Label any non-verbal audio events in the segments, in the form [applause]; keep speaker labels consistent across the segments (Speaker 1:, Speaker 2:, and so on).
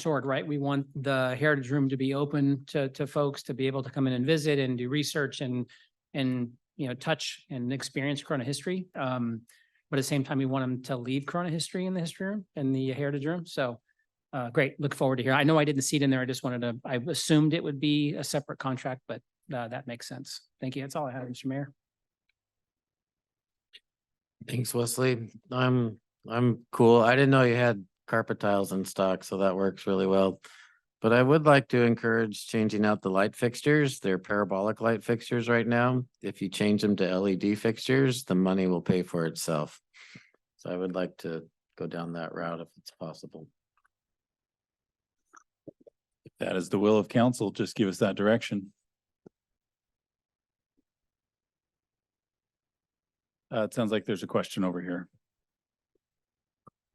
Speaker 1: sword, right? We want the Heritage Room to be open to, to folks to be able to come in and visit and do research and, and, you know, touch and experience Corona history. Um, but at the same time, we want them to leave Corona history in the history room and the Heritage Room. So, uh, great, look forward to hear. I know I didn't see it in there. I just wanted to, I assumed it would be a separate contract, but, uh, that makes sense. Thank you. That's all I have, Mr. Mayor.
Speaker 2: Thanks, Wesley. I'm, I'm cool. I didn't know you had carpet tiles in stock, so that works really well. But I would like to encourage changing out the light fixtures. They're parabolic light fixtures right now. If you change them to LED fixtures, the money will pay for itself. So I would like to go down that route if it's possible.
Speaker 3: If That is the will of council. Just give us that direction. Uh, it sounds like there's a question over here.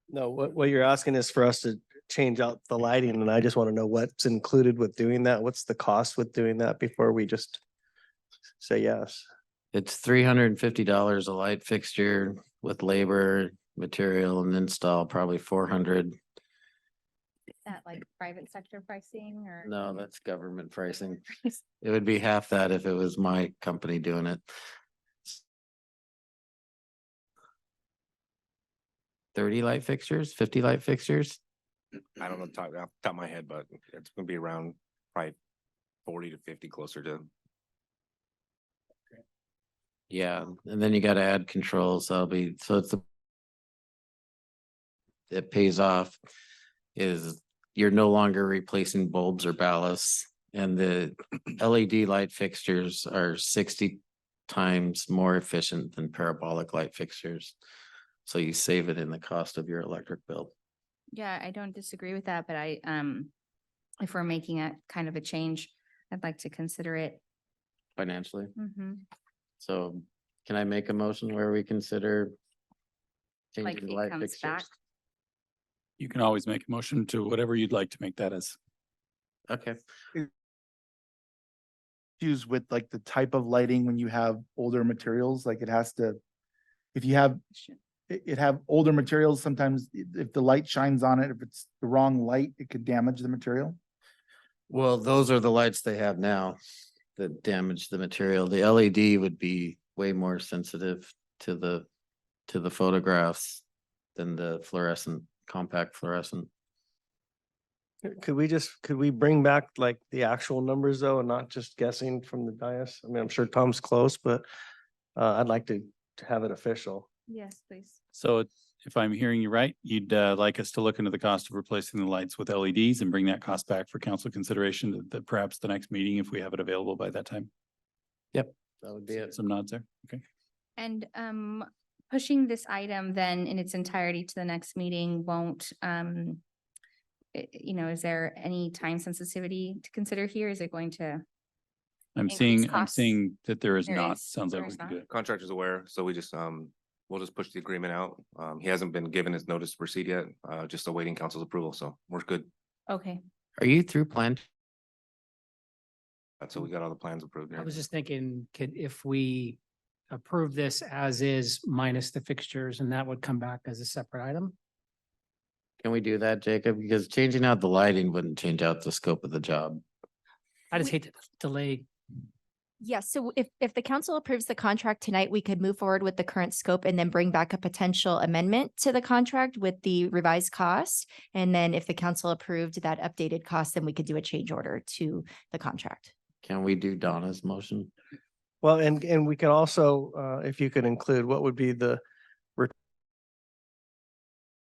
Speaker 4: No, what, what you're asking is for us to change out the lighting and I just want to know what's included with doing that. What's the cost with doing that before we just say yes?
Speaker 2: It's three hundred and fifty dollars a light fixture with labor, material and install, probably four hundred.
Speaker 5: that like private sector pricing or?
Speaker 2: No, that's government
Speaker 5: [laughs]
Speaker 2: pricing. It would be half that if it was my company doing it. Thirty light fixtures, fifty light fixtures?
Speaker 6: I don't know, top, off the top of my head, but it's gonna be around probably forty to fifty closer to.
Speaker 2: Yeah, and then you gotta add controls, that'll be, so it's the. It pays off is you're no longer replacing bulbs or ballasts. And the LED light fixtures are sixty times more efficient than parabolic light fixtures. So you save it in the cost of your electric bill.
Speaker 5: Yeah, I don't disagree with that, but I, um, if we're making a kind of a change, I'd like to consider it.
Speaker 2: financially.
Speaker 5: Mhm.
Speaker 2: So can I make a motion where we consider?
Speaker 5: Like
Speaker 2: changing the
Speaker 5: it
Speaker 2: light
Speaker 5: comes back.
Speaker 2: fixtures?
Speaker 3: You can always make a motion to whatever you'd like to make that as.
Speaker 2: Okay,
Speaker 7: issues with like the type of lighting when you have older materials, like it has to, if you have, it, it have older materials, sometimes i- if the light shines on it, if it's the wrong light, it could damage the material.
Speaker 2: well, those are the lights they have now that damage the material. The LED would be way more sensitive to the, to the photographs than the fluorescent, compact fluorescent.
Speaker 4: Could we just, could we bring back like the actual numbers though and not just guessing from the dais? I mean, I'm sure Tom's close, but uh, I'd like to, to have it official.
Speaker 5: Yes, please.
Speaker 3: So it- if I'm hearing you right, you'd uh, like us to look into the cost of replacing the lights with LEDs and bring that cost back for council consideration to the- perhaps the next meeting if we have it available by that time.
Speaker 2: That would be it.
Speaker 3: Some nods there. Okay.
Speaker 5: And, um, pushing this item then in its entirety to the next meeting won't, um, i- you know, is there any time sensitivity to consider here? Is it going to?
Speaker 3: I'm
Speaker 5: Increase
Speaker 3: seeing, I'm
Speaker 5: costs.
Speaker 3: seeing that there is
Speaker 5: There
Speaker 3: not.
Speaker 5: is-
Speaker 3: Sounds like
Speaker 5: there
Speaker 3: we
Speaker 5: is
Speaker 3: can
Speaker 5: not.
Speaker 3: do it.
Speaker 6: Contractor's aware, so we just, um, we'll just push the agreement out. Um, he hasn't been given his notice to proceed yet, uh, just awaiting council's approval, so we're good.
Speaker 5: Okay,
Speaker 2: Are you through plan?
Speaker 6: That's how we got all the plans approved. and
Speaker 1: Mm. I was
Speaker 6: everything.
Speaker 1: just thinking, could, if we approve this as is minus the fixtures and that would come back as a separate item?
Speaker 2: Can we do that, Jacob? Because changing out the lighting wouldn't change out the scope of the job.
Speaker 1: I just
Speaker 8: We-
Speaker 1: hate to delay.
Speaker 8: Yes, so if, if the council approves the contract tonight, we could move forward with the current scope and then bring back a potential amendment to the contract with the revised cost. And then if the council approved that updated cost, then we could do a change order to the contract.
Speaker 2: Can we do Donna's motion?
Speaker 4: Well, and, and we can also, uh, if you could include, what would be the re-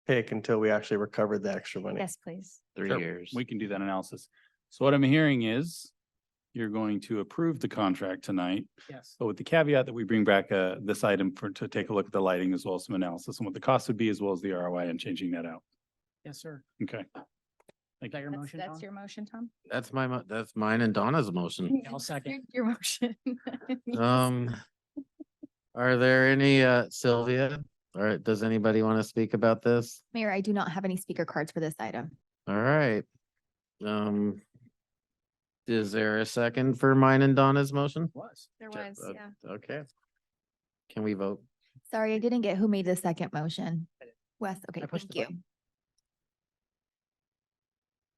Speaker 4: pick until we actually recovered the extra money?
Speaker 5: yes, please.
Speaker 2: Three
Speaker 3: Sure,
Speaker 2: years.
Speaker 3: We can do that analysis. So what I'm hearing is you're going to approve the contract tonight,
Speaker 1: Yes.
Speaker 5: Oh.
Speaker 3: but with the caveat that we bring back uh this item for to take a look at the lighting as well as some analysis and what the cost would be as well as the ROI and changing that out.
Speaker 1: Yes, sir.
Speaker 3: Okay.
Speaker 1: Is that your
Speaker 5: That's,
Speaker 1: motion?
Speaker 5: that's
Speaker 1: Tom? Uh,
Speaker 5: your motion, Tom? [laughs]
Speaker 2: That's my, mo- that's mine and Donna's motion.
Speaker 1: I'll second.
Speaker 5: Your motion. [laughs]
Speaker 2: Um, are there any, uh, Sylvia? All right, does anybody want to speak about this?
Speaker 8: Mayor, I do not have any speaker cards for this item.
Speaker 2: All right. Um, is there a second for mine and Donna's motion?
Speaker 1: Was.
Speaker 5: There
Speaker 2: Check
Speaker 5: was,
Speaker 1: uh,
Speaker 2: that.
Speaker 5: yeah.
Speaker 2: Okay. Can we vote?
Speaker 8: Sorry, I didn't get who made the second motion. Wes, okay,
Speaker 1: I pushed
Speaker 8: thank
Speaker 1: the
Speaker 8: you.
Speaker 1: button.